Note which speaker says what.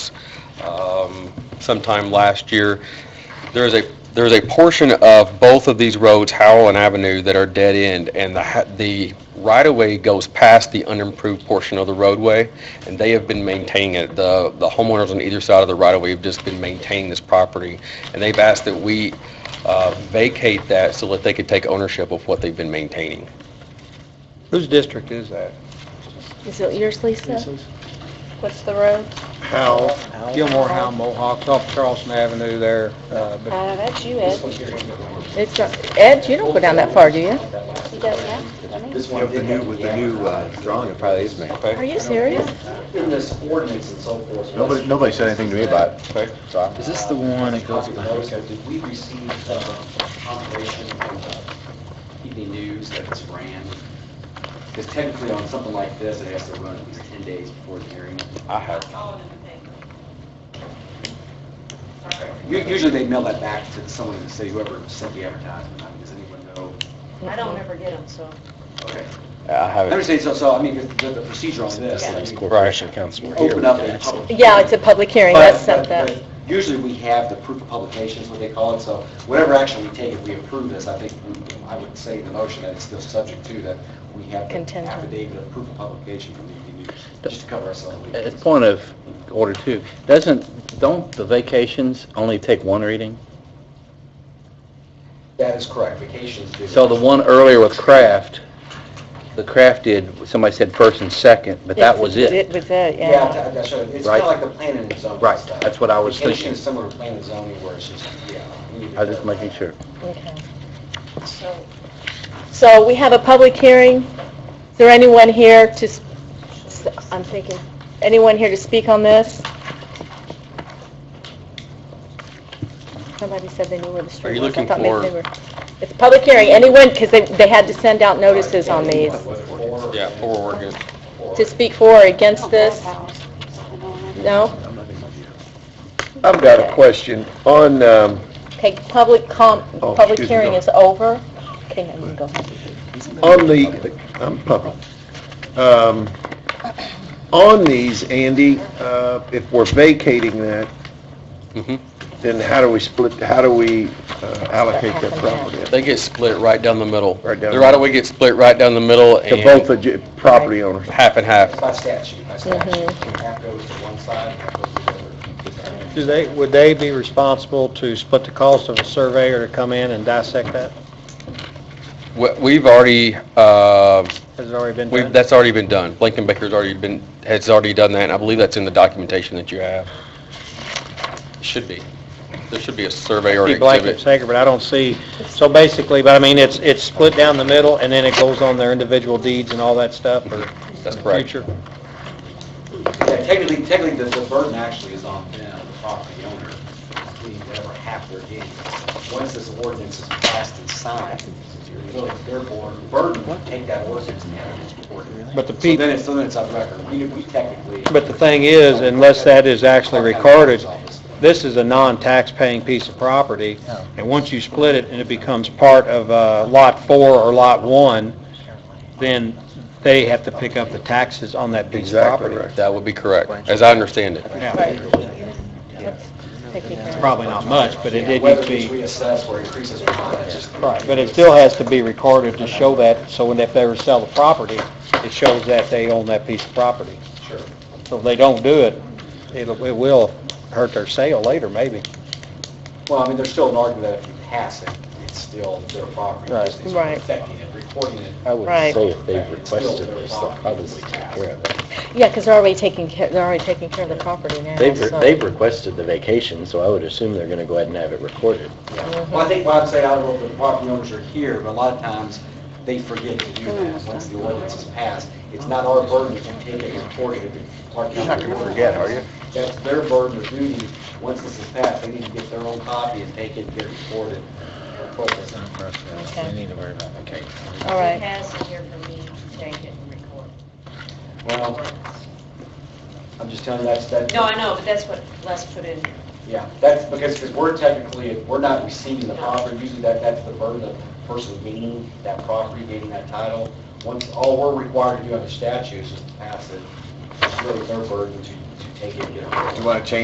Speaker 1: um, sometime last year. There is a, there is a portion of both of these roads, Howell and Avenue, that are dead-end, and the, ha- the right-of-way goes past the unimproved portion of the roadway, and they have been maintaining it. The, the homeowners on either side of the right-of-way have just been maintaining this property, and they've asked that we uh, vacate that so that they could take ownership of what they've been maintaining.
Speaker 2: Whose district is that?
Speaker 3: Is it yours, Lisa? What's the road?
Speaker 2: Howell, Gilmore Howell, Mohawk, off Charleston Avenue there. uh, but-
Speaker 3: Uh, that's you, Ed. It's, not- Ed, you don't go down that far, do you? He does, yeah.
Speaker 4: This one, with the new, with the new uh, drawing, it probably is me.
Speaker 3: Are you serious?
Speaker 4: In this ordinance and so forth. Nobody, nobody said anything to me about it.
Speaker 1: Okay.
Speaker 4: So
Speaker 5: Is this the one that goes behind?
Speaker 6: Did we receive the confirmation from the evening news that it's ran? Because technically on something like this, it has to run at least 10 days before the hearing.
Speaker 1: I have.
Speaker 6: U- Usually they mail that back to someone in the city, whoever sent the advertisement. I mean, Does anyone know?
Speaker 7: I don't ever get them, so.
Speaker 6: Okay.
Speaker 1: I
Speaker 6: I
Speaker 1: have it.
Speaker 6: understand, so, so I mean, the the procedure on this, like, you
Speaker 5: Corporation Council here.
Speaker 6: open up a public.
Speaker 3: Yeah, it's a public hearing,
Speaker 6: But-
Speaker 3: that's
Speaker 6: but-
Speaker 3: something.
Speaker 6: but Usually we have the proof of publication, is what they call it, so whatever action we take, if we approve this, I think, we- I would say in the motion that it's still subject to that we have the
Speaker 3: Contingent.
Speaker 6: affidavit of proof of publication from the ED News, just to cover ourselves.
Speaker 5: At point of order two, doesn't, don't the vacations only take one reading?
Speaker 6: That is correct, vacations do.
Speaker 5: So the one earlier with Kraft, the Kraft did, somebody said first and second, but that was it.
Speaker 3: was it,
Speaker 6: Yeah,
Speaker 3: yeah.
Speaker 6: that- that's right, it's kind
Speaker 5: Right.
Speaker 6: of like the planning and zoning
Speaker 5: Right,
Speaker 6: stuff.
Speaker 5: that's what I was
Speaker 6: Vacation
Speaker 5: thinking.
Speaker 6: is similar to planning and zoning where it's just, yeah. we need to
Speaker 5: I was just
Speaker 6: clarify.
Speaker 5: making sure.
Speaker 3: Okay.
Speaker 7: So
Speaker 3: So we have a public hearing. Is there anyone here to, s- s- I'm thinking, anyone here to speak on this? Somebody said they knew where the
Speaker 1: Are
Speaker 3: street
Speaker 1: you
Speaker 3: was. I
Speaker 1: looking
Speaker 3: thought maybe
Speaker 1: for-
Speaker 3: they were- It's a public hearing, anyone, because they, they had to send out notices on these,
Speaker 1: Yeah, four were good.
Speaker 3: to speak for or against this. No?
Speaker 4: I've got a question on, um,
Speaker 3: Okay, public com,
Speaker 4: Oh,
Speaker 3: public
Speaker 4: excuse me,
Speaker 3: hearing
Speaker 4: go.
Speaker 3: is over. Okay, now you go.
Speaker 4: on the, I'm public. Um, On these, Andy, uh, if we're vacating that,
Speaker 1: Mhm.
Speaker 5: Mm-hmm.
Speaker 4: then how do we split, how do we uh, allocate that property?
Speaker 1: They get split right down the middle.
Speaker 4: Right down
Speaker 1: The
Speaker 4: the
Speaker 1: right of way gets split right down the middle
Speaker 4: To both
Speaker 1: and
Speaker 4: the j- property owners?
Speaker 1: half and half.
Speaker 6: It's by statute, by statute,
Speaker 3: Mm-hmm.
Speaker 6: half goes to one side, half goes to the other.
Speaker 2: Do they, would they be responsible to split the cost of a surveyor to come in and dissect that?
Speaker 1: We- We've already, uh,
Speaker 2: Has it already been
Speaker 1: we've,
Speaker 2: done?
Speaker 1: that's already been done. Lincoln Baker's already been, has already done that, and I believe that's in the documentation that you have. Should be. There should be a survey or
Speaker 2: Be
Speaker 1: an
Speaker 2: blanket
Speaker 1: exhibit.
Speaker 2: sacred, but I don't see, so basically, but I mean, it's, it's split down the middle, and then it goes on their individual deeds and all that stuff, or
Speaker 1: That's correct.
Speaker 2: future?
Speaker 6: Yeah, technically, technically, the, the burden actually is on them, the property owner, including whatever half they're getting. Once this ordinance is passed and signed, really, therefore, the burden would take that ordinance and have it recorded.
Speaker 2: But the
Speaker 6: So
Speaker 2: people,
Speaker 6: then it's, so then it's on record. We, we technically.
Speaker 2: but the thing is, unless that is actually recorded, this is a non-tax-paying piece of property, and once you split it and it becomes part of uh, Lot 4 or Lot 1, then they have to pick up the taxes on that piece of
Speaker 4: Exactly
Speaker 2: property.
Speaker 4: right.
Speaker 1: That would be correct, as I understand it.
Speaker 2: Yeah,
Speaker 3: Right. Taking care of it.
Speaker 2: Probably not much, but it did
Speaker 6: Whether
Speaker 2: need
Speaker 6: it's
Speaker 2: to be,
Speaker 6: reassessed or increases or not, that's just.
Speaker 2: right, but it still has to be recorded to show that, so when they if they ever sell the property, it shows that they own that piece of property.
Speaker 6: Sure.
Speaker 2: So if they don't do it, it'll, it will hurt their sale later, maybe.
Speaker 6: Well, I mean, there's still an argument that if you pass it, it's still their property.
Speaker 2: Right.
Speaker 6: It's
Speaker 3: Right.
Speaker 6: Affecting it, recording it.
Speaker 5: I would
Speaker 3: Right. say
Speaker 5: if
Speaker 6: they requested this, they'll probably take care of
Speaker 5: it.
Speaker 3: Yeah, because they're already taking, care. they're already taking care of the property now, so-
Speaker 5: requested the vacation, so I would assume they're going to go ahead and have it recorded.
Speaker 6: Well, I think Bob said, I don't know if the property owners are here, but a lot of times, they forget to do that once the ordinance is passed. It's not our burden to take it and report it. You're not going to forget, are you? That's their burden or duty, once this is passed, they need to get their own copy and take it, get it reported, and report it.
Speaker 3: Okay.
Speaker 5: need to worry about vacation.
Speaker 3: All right.
Speaker 7: He has it here for me to take it and record.
Speaker 6: Well, I'm just telling you, that's, that.
Speaker 7: No, I know, but that's what Les put in.
Speaker 6: Yeah, that's because, because we're technically, we're not receiving the property, usually that, that's the burden of the person gaining that property, gaining that title. Once, all we're required to do under statute is just to pass it, it's really their burden to, to take it, you know.
Speaker 4: You want to change